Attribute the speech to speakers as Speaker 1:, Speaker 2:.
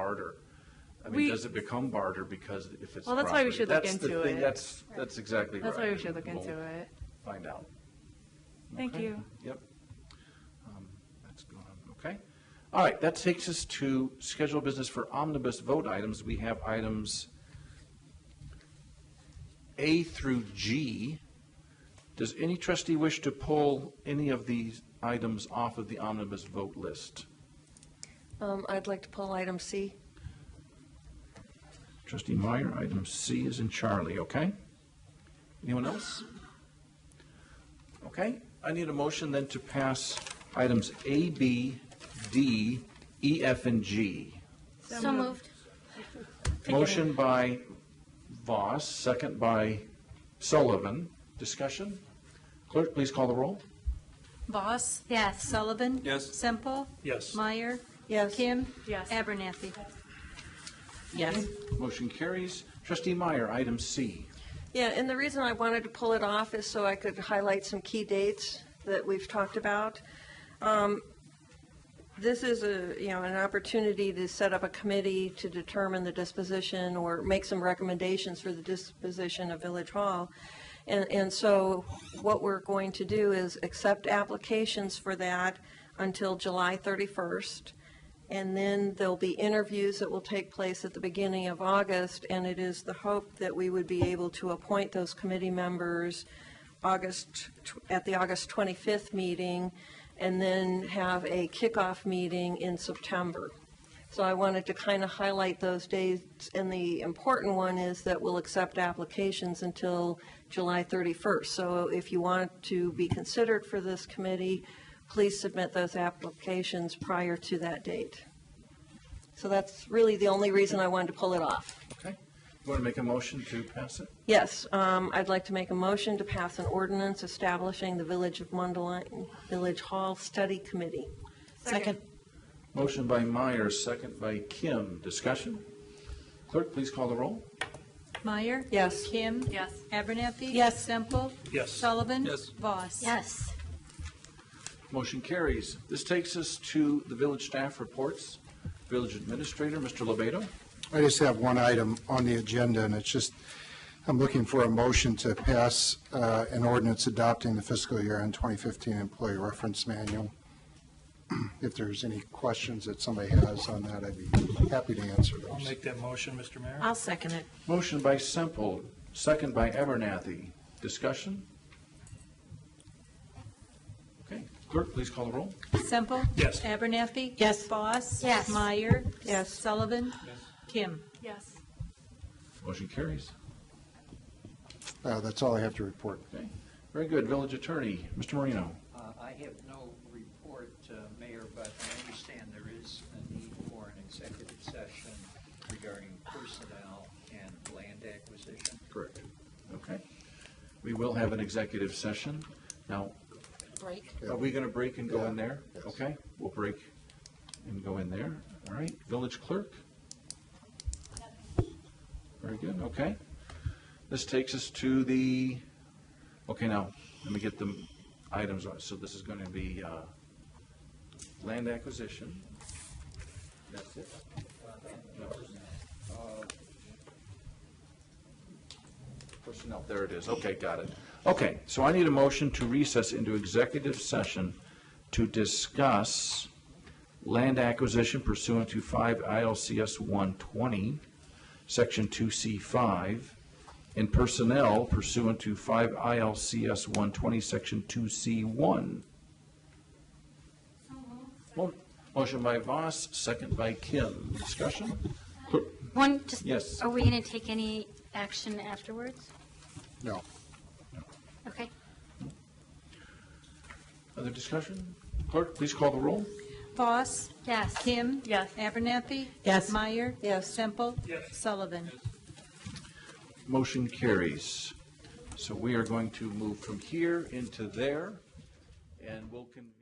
Speaker 1: barter. I mean,
Speaker 2: We-
Speaker 1: does it become barter because if it's property?
Speaker 2: Well, that's why we should look
Speaker 1: That's the
Speaker 2: into
Speaker 1: thing,
Speaker 2: it.
Speaker 1: That's, that's exactly right.
Speaker 2: That's why we should look into
Speaker 1: We'll
Speaker 2: it.
Speaker 1: Find out.
Speaker 2: Thank
Speaker 1: Okay.
Speaker 2: you.
Speaker 1: Yep. Um, That's gone, okay. All right, that takes us to schedule business for omnibus vote items. We have items A through G. Does any trustee wish to pull any of these items off of the omnibus vote list?
Speaker 3: Um, I'd like to pull item C.
Speaker 1: Trustee Meyer, item C is in Charlie, okay? Anyone else? Okay, I need a motion then to pass items A, B, D, E, F, and G.
Speaker 4: So moved.
Speaker 1: Motion by Voss, second by Sullivan. Discussion? Clerk, please call the roll.
Speaker 5: Voss.
Speaker 4: Yes.
Speaker 5: Sullivan.
Speaker 6: Yes.
Speaker 5: Semple.
Speaker 6: Yes.
Speaker 5: Meyer.
Speaker 3: Yes.
Speaker 5: Kim.
Speaker 2: Yes.
Speaker 5: Abernathy.
Speaker 3: Yes.
Speaker 1: Motion carries. Trustee Meyer, item C.
Speaker 3: Yeah, and the reason I wanted to pull it off is so I could highlight some key dates that we've talked about. Um, This is a, you know, an opportunity to set up a committee to determine the disposition or make some recommendations for the disposition of Village Hall. And, and so what we're going to do is accept applications for that until July 31st. And then there'll be interviews that will take place at the beginning of August, and it is the hope that we would be able to appoint those committee members August, tw- at the August 25th meeting, and then have a kickoff meeting in September. So I wanted to kind of highlight those dates, and the important one is that we'll accept applications until July 31st. So if you want to be considered for this committee, please submit those applications prior to that date. So that's really the only reason I wanted to pull it off.
Speaker 1: Okay? You want to make a motion to pass it?
Speaker 3: Yes, um, I'd like to make a motion to pass an ordinance establishing the Village of Mundelein Village Hall Study Committee.
Speaker 5: Second.
Speaker 1: Motion by Meyer, second by Kim. Discussion? Clerk, please call the roll.
Speaker 5: Meyer.
Speaker 3: Yes.
Speaker 5: Kim.
Speaker 2: Yes.
Speaker 5: Abernathy.
Speaker 3: Yes.
Speaker 5: Semple.
Speaker 6: Yes.
Speaker 5: Sullivan.
Speaker 6: Yes.
Speaker 5: Voss.
Speaker 4: Yes.
Speaker 1: Motion carries. This takes us to the village staff reports. Village Administrator, Mr. Lebato.
Speaker 7: I just have one item on the agenda, and it's just, I'm looking for a motion to pass uh, an ordinance adopting the fiscal year end 2015 employee reference manual. If there's any questions that somebody has on that, I'd be happy to answer
Speaker 6: I'll
Speaker 7: those.
Speaker 6: make that motion, Mr. Mayor.
Speaker 3: I'll second it.
Speaker 1: Motion by Semple, second by Abernathy. Discussion? Okay, clerk, please call the roll.
Speaker 5: Semple.
Speaker 6: Yes.
Speaker 5: Abernathy.
Speaker 3: Yes.
Speaker 5: Voss.
Speaker 4: Yes.
Speaker 5: Meyer.
Speaker 3: Yes.
Speaker 5: Sullivan. Kim.
Speaker 2: Yes.
Speaker 1: Motion carries.
Speaker 7: Uh, That's all I have to report.
Speaker 1: Okay, very good. Village Attorney, Mr. Marino.
Speaker 8: Uh, I have no report, uh, Mayor, but I understand there is a need for an executive session regarding personnel and land acquisition.
Speaker 1: Correct. Okay. We will have an executive session. Now,
Speaker 3: Break.
Speaker 1: Are we going to break and go in
Speaker 7: Yeah.
Speaker 1: there? Okay, we'll break and go in there. All right, village clerk? Very good, okay. This takes us to the, okay, now, let me get the items on. So this is going to be uh, land acquisition. That's it. No. Uh, Personnel, there it is. Okay, got it. Okay, so I need a motion to recess into executive session to discuss land acquisition pursuant to 5 ILCS 120, Section 2C5, and personnel pursuant to 5 ILCS 120, Section 2C1. Mo- Motion by Voss, second by Kim. Discussion? Clerk,
Speaker 4: One, just.
Speaker 1: Yes.
Speaker 4: Are we going to take any action afterwards?
Speaker 7: No.
Speaker 4: Okay.
Speaker 1: Other discussion? Clerk, please call the roll.
Speaker 5: Voss.
Speaker 4: Yes.
Speaker 5: Kim.
Speaker 2: Yes.
Speaker 5: Abernathy.
Speaker 3: Yes.
Speaker 5: Meyer.
Speaker 3: Yes.
Speaker 5: Semple. Yes. Sullivan.
Speaker 1: Motion carries. So we are going to move from here into there, and we'll convene.